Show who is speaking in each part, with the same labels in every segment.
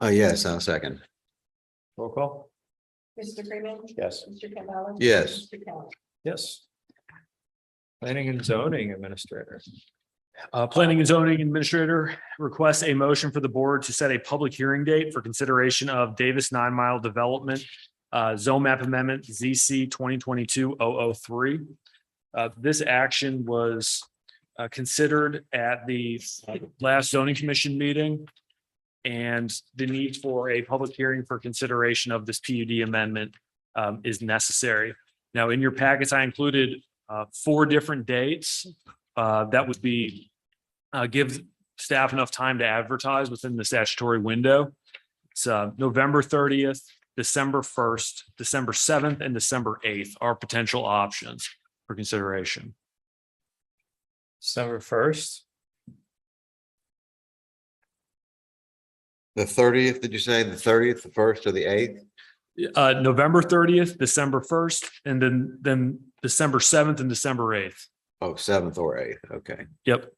Speaker 1: Oh, yes, I'll second.
Speaker 2: Roll call?
Speaker 3: Mr. Freeman.
Speaker 2: Yes.
Speaker 3: Mr. Campbell.
Speaker 1: Yes.
Speaker 3: Mr. Kelly.
Speaker 2: Yes. Planning and zoning administrator.
Speaker 4: Uh, planning and zoning administrator requests a motion for the board to set a public hearing date for consideration of Davis Nine Mile Development. Uh, zone map amendment ZC 2022-003. Uh, this action was uh, considered at the uh, last zoning commission meeting. And the need for a public hearing for consideration of this PUD amendment um, is necessary. Now, in your packets, I included uh, four different dates. Uh, that would be uh, give staff enough time to advertise within the statutory window. It's uh, November thirtieth, December first, December seventh, and December eighth are potential options for consideration.
Speaker 2: December first,
Speaker 1: The thirtieth, did you say? The thirtieth, the first or the eighth?
Speaker 4: Uh, November thirtieth, December first, and then, then December seventh and December eighth.
Speaker 1: Oh, seventh or eighth, okay.
Speaker 4: Yep.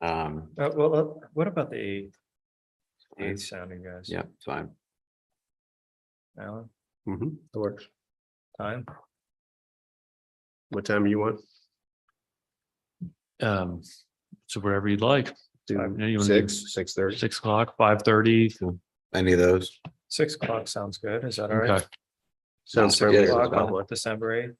Speaker 1: Um,
Speaker 2: uh, well, uh, what about the eighth? The
Speaker 1: Fine.
Speaker 2: eighth sounding guys?
Speaker 1: yeah, fine.
Speaker 2: Alan,
Speaker 5: Mhm, that works.
Speaker 2: time?
Speaker 5: What time you want?
Speaker 4: Um, so wherever you'd like,
Speaker 5: Do
Speaker 4: Five, yeah, you wanna do-
Speaker 5: Six, six thirty.
Speaker 4: six o'clock, five thirty.
Speaker 1: Any of those?
Speaker 2: Six o'clock sounds good. Is that all right?
Speaker 4: Okay,
Speaker 1: Sounds
Speaker 5: Sounds fair.
Speaker 1: good.
Speaker 5: with
Speaker 2: O'clock
Speaker 5: the
Speaker 2: on
Speaker 1: well.
Speaker 5: public.
Speaker 2: December eighth.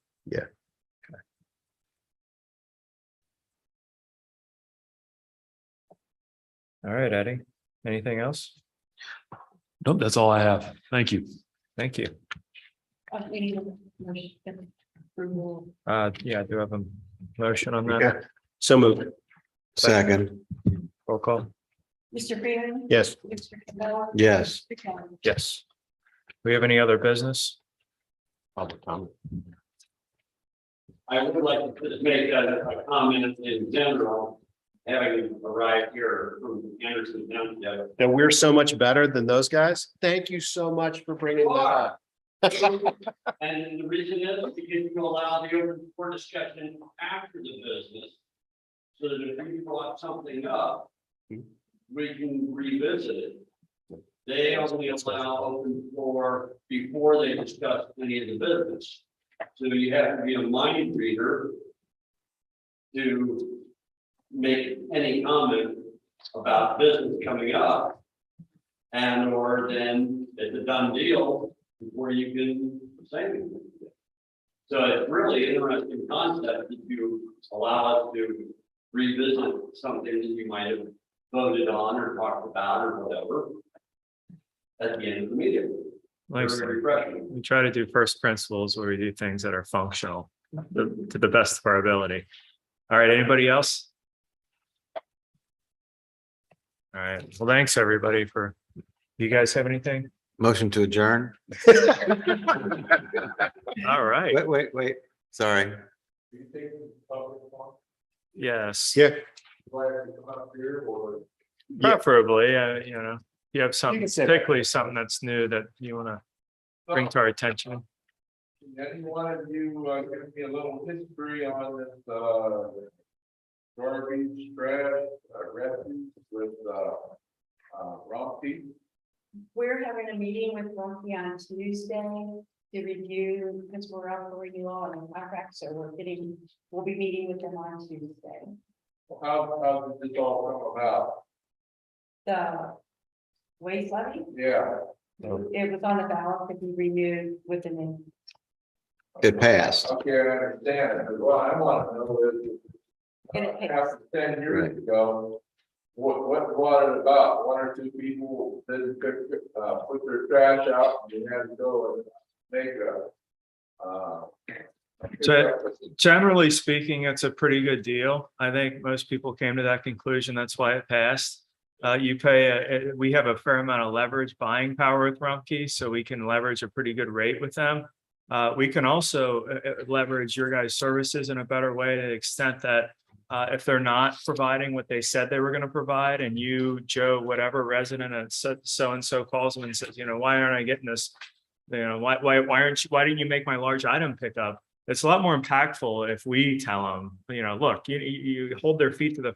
Speaker 2: All right, Eddie. Anything else?
Speaker 4: nope, that's all I have. Thank you.
Speaker 2: Thank you.
Speaker 3: Uh, We need a motion. Approval.
Speaker 2: Uh, yeah, I do have a motion on that.
Speaker 5: Yeah. So moved.
Speaker 1: Second,
Speaker 2: Roll call.
Speaker 3: Mr. Freeman.
Speaker 5: Yes.
Speaker 3: Mr. Campbell.
Speaker 1: yes.
Speaker 3: Mr. Kelly.
Speaker 2: Yes. We have any other business?
Speaker 5: Public comment.
Speaker 6: I would like to just make a, a comment in general, having arrived here from Anderson Township.
Speaker 5: That we're so much better than those guys. Thank you so much for bringing that up.
Speaker 6: And the reason is because you allow the open for discussion after the business. So that if we brought something up, we can revisit it. They only allow open floor before they discuss any of the business. So you have to be a mind reader to make any comment about business coming up. And or then it's a done deal before you can say anything. So it's really interesting concept that you allow us to revisit something that you might have voted on or talked about or whatever. At the end of the meeting. Very
Speaker 2: Thanks.
Speaker 6: refreshing.
Speaker 2: we try to do first principles where we do things that are functional the- to the best of our ability. All right, anybody else? All right, well, thanks, everybody, for, you guys have anything?
Speaker 1: Motion to adjourn?
Speaker 2: All right,
Speaker 1: Wait, wait, wait, sorry.
Speaker 2: yes,
Speaker 5: Yeah, Yeah.
Speaker 2: preferably, uh, you know, you have something,
Speaker 5: can sit.
Speaker 2: particularly something that's new that you want to bring to our attention.
Speaker 7: Any one of you uh give me a little history on this uh. Garbage trash uh, refuse with uh uh Rompy?
Speaker 3: We're having a meeting with Lumpy on Tuesday to review, because we're up for renewal and contract, so we're getting, we'll be meeting with them on Tuesday.
Speaker 7: How how did this all come about?
Speaker 3: The waste levy,
Speaker 7: Yeah,
Speaker 3: it was on the ballot to be renewed with an
Speaker 1: It passed.
Speaker 7: okay, I understand, but what I wanna know is.
Speaker 3: And it takes-
Speaker 7: After ten
Speaker 1: Right.
Speaker 7: years ago. What what what it about, one or two people didn't pick uh put their trash out and you had to go and make a. Uh.
Speaker 2: So- generally speaking, it's a pretty good deal. I think most people came to that conclusion. That's why it passed. Uh, you pay, a- a- we have a fair amount of leverage buying power with Rumpke, so we can leverage a pretty good rate with them. Uh, we can also uh, uh, leverage your guys' services in a better way to the extent that uh, if they're not providing what they said they were going to provide and you, Joe, whatever resident at so, so and so calls them and says, you know, why aren't I getting this? You know, why, why, why aren't you, why didn't you make my large item pickup? it's a lot more impactful if we tell them, you know, look, you, you you hold their feet to the